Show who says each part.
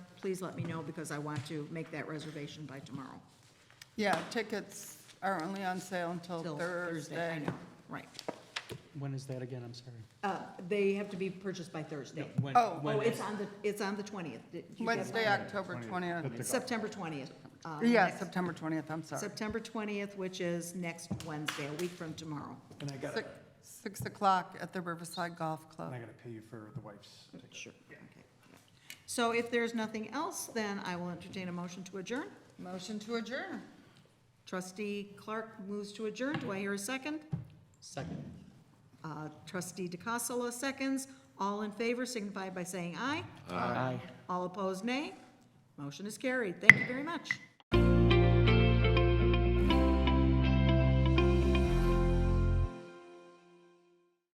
Speaker 1: please let me know because I want to make that reservation by tomorrow.
Speaker 2: Yeah, tickets are only on sale until
Speaker 1: Till
Speaker 2: Thursday.
Speaker 1: I know, right.
Speaker 3: When is that again? I'm sorry.
Speaker 1: Uh, They have to be purchased by Thursday.
Speaker 3: When-
Speaker 2: Oh.
Speaker 3: when
Speaker 1: Oh,
Speaker 3: is-
Speaker 1: it's on the, it's on the 20th. Did you get
Speaker 2: Wednesday,
Speaker 1: mine?
Speaker 2: October 20th.
Speaker 1: September 20th. uh,
Speaker 2: Yeah,
Speaker 1: next-
Speaker 2: September 20th, I'm sorry.
Speaker 1: September 20th, which is next Wednesday, a week from tomorrow.
Speaker 4: And I gotta,
Speaker 2: Six- 6 o'clock at the Riverside Golf
Speaker 4: and I
Speaker 2: Club.
Speaker 4: gotta pay you for the wife's ticket.
Speaker 1: Sure. Okay. So if there's nothing else, then I will entertain a motion to adjourn.
Speaker 2: Motion to adjourn.
Speaker 1: Trustee Clark moves to adjourn. Do I hear a second?
Speaker 3: Second.
Speaker 1: Uh, Trustee DeCassola seconds. All in favor signify by saying aye.
Speaker 3: Aye.
Speaker 1: All opposed, nay. Motion is carried. Thank you very much.